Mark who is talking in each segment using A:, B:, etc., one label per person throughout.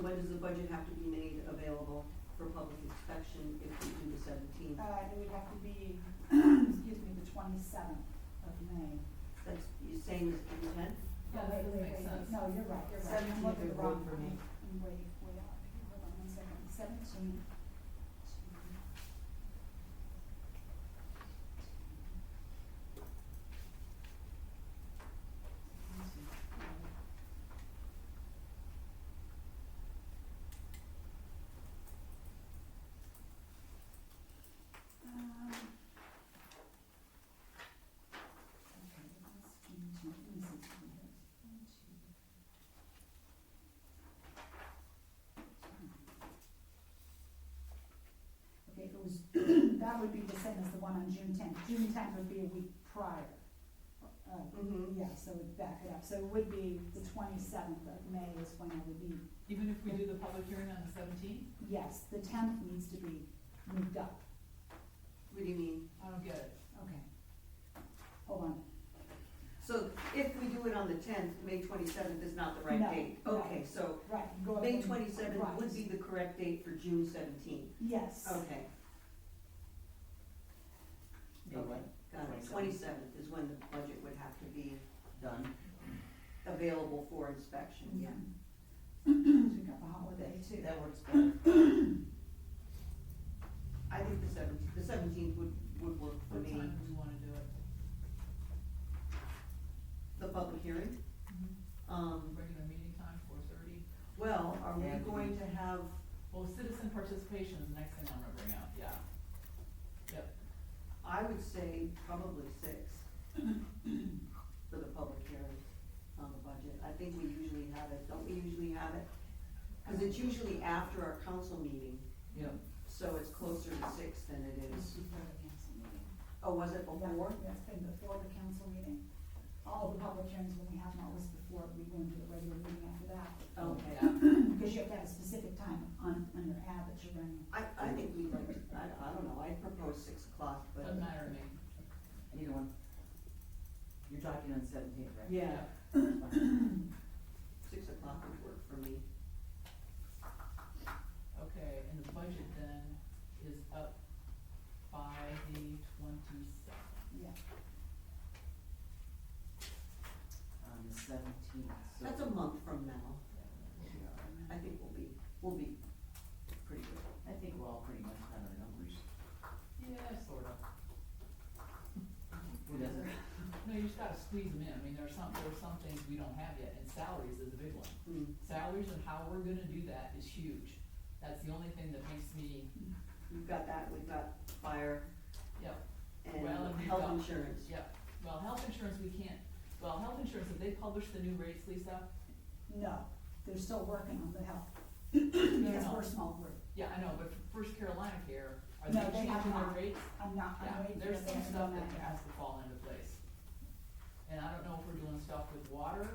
A: when does the budget have to be made available for public inspection if we do the seventeenth?
B: Uh, it would have to be, excuse me, the twenty-seventh of May.
A: That's, you're saying it's the tenth?
B: No, wait,
C: Yeah, that
B: wait, wait,
C: makes sense.
B: No, you're right, you're right. I'm
A: 17th
B: looking
A: would work
B: wrong
A: for me.
B: one. I'm way, way off. Hold on one second. Seventeen. Um. Okay, let's into, let me see, something here. One, two. Okay, if it was, that would be the same as the one on June tenth, June tenth would be a week prior. Uh,
A: Mm-hmm.
B: yeah, so we'd back it up, so it would be the twenty-seventh of May is when it would be,
C: Even if we do the public hearing on the seventeenth,
B: yes, the tenth needs to be moved up,
A: What do you mean?
C: I don't get it.
B: okay. Hold on,
A: So if we do it on the tenth, May twenty-seventh is not the
B: No,
A: right date?
B: no.
A: Okay, so
B: right, go up.
A: May
B: and-
A: twenty-seventh
B: right.
A: would be the correct date for June seventeenth?
B: Yes.
A: Okay,
D: Be what?
A: got it.
D: 27th.
A: Twenty-seventh is when the budget would have to be
D: Done.
A: available for inspection.
B: Yeah. Pick up a holiday
D: That-
B: too.
D: That works better.
A: I think the seventeenth, the seventeenth would, would work for
C: What
A: me.
C: time do we wanna do it?
A: The public hearing, um,
C: Mm-hmm. Regular meeting time, four thirty.
A: well, are
D: Yeah.
A: we going to have,
C: Well, citizen participation is the next thing I'm gonna bring up, yeah. Yep,
A: I would say probably six for the public hearing on the budget. I think we usually have it, don't we usually have it? Cause it's usually after our council meeting,
C: yep.
A: so it's closer to six than it
B: It's
A: is.
B: before the council meeting.
A: Oh, was it before?
B: Yeah, It's been before the council meeting. All the public hearings when we have them always before, we go into the regular meeting after that.
C: Oh.
A: Okay.
C: Yeah,
B: Because you have to have a specific time on, on your ad that you're running.
A: I, I think we like, to- I, I don't know, I propose six o'clock, but.
C: doesn't matter to me.
D: Either one. You're talking on seventeenth, right?
A: Yeah,
C: Yep.
A: six o'clock would work for me.
C: Okay, and the budget then is up by the twenty-seventh.
B: Yeah.
D: On the seventeenth, so.
A: That's a month from now. I think we'll be, we'll be pretty good.
D: I think we're all pretty much done on numbers.
C: Yeah, sort of.
D: Who doesn't?
C: No, you just gotta squeeze them in. I mean, there's some, there's some things we don't have yet, and salaries is a big one.
A: Mm.
C: Salaries and how we're gonna do that is huge. That's the only thing that makes me,
A: We've got that, we've got fire
C: yep,
A: and
C: Well, and we've
A: health
C: got-
A: insurance.
C: yep. Well, health insurance, we can't, well, health insurance, have they published the new rates, Lisa?
B: No, they're still working on the health.
C: no,
B: Because
C: no.
B: we're a small group.
C: Yeah, I know, but for First Carolina Care, are
B: No,
C: they
B: they have
C: changing their
B: not.
C: rates?
B: I'm not,
C: Yeah,
B: I'm waiting for
C: there's
B: them
C: some
B: to
C: stuff
B: go
C: that
B: back.
C: has to fall into place. And I don't know if we're doing stuff with water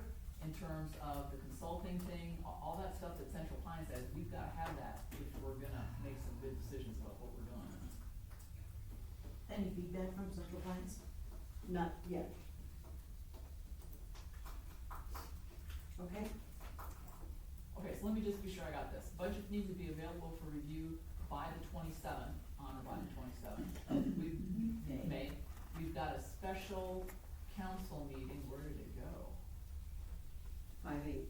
C: in terms of the consulting thing, a- all that stuff that Central Pine says, we've gotta have that if we're gonna make some good decisions about what we're doing.
E: Any feedback from Central Pines?
A: Not yet. Okay,
C: Okay, so let me just be sure I got this. Budget needs to be available for review by the twenty-seventh, on or by the twenty-seventh. We've,
D: May.
C: May, we've got a special council meeting, where did it go?
A: five eight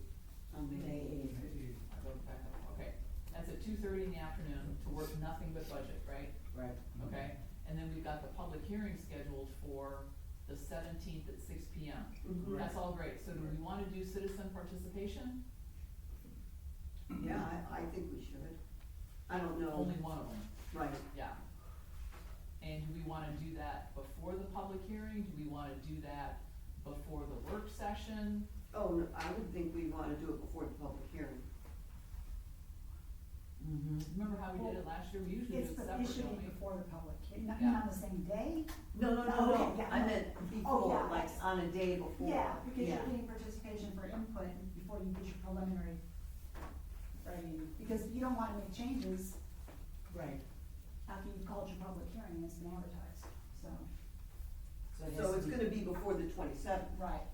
A: on the
D: May
A: day.
D: eighth.
C: I wrote it back up. okay. That's at two thirty in the afternoon to work nothing but budget, right?
D: Right.
C: Okay, and then we've got the public hearing scheduled for the seventeenth at six P M.
A: Mhm.
C: That's all great. So do we wanna do citizen participation?
A: Yeah, I, I think we should. I don't know,
C: Only one of them.
A: right,
C: Yeah. And do we wanna do that before the public hearing? Do we wanna do that before the work session?
A: oh, no, I would think we wanna do it before the public hearing.
D: Mm-hmm.
C: Remember how we did it last year? We usually do
B: It's the,
C: it separate,
B: it should
C: don't
B: be
C: we?
B: before the public, hearing. not,
C: Yeah.
B: not on the same day.
A: No, no, no,
B: Oh,
A: no,
B: okay, yeah,
A: I
B: no.
A: meant
B: yeah.
A: before, like on a day before.
B: Yeah, because you're
A: Oh, Yeah.
B: getting participation for input before you get your preliminary. I mean, because you don't wanna make changes
D: Right.
B: after you've called your public hearing, and it's been advertised, so.
D: So it has
A: So
D: to
A: it's
D: be-
A: gonna be before the twenty-seventh.
B: Right.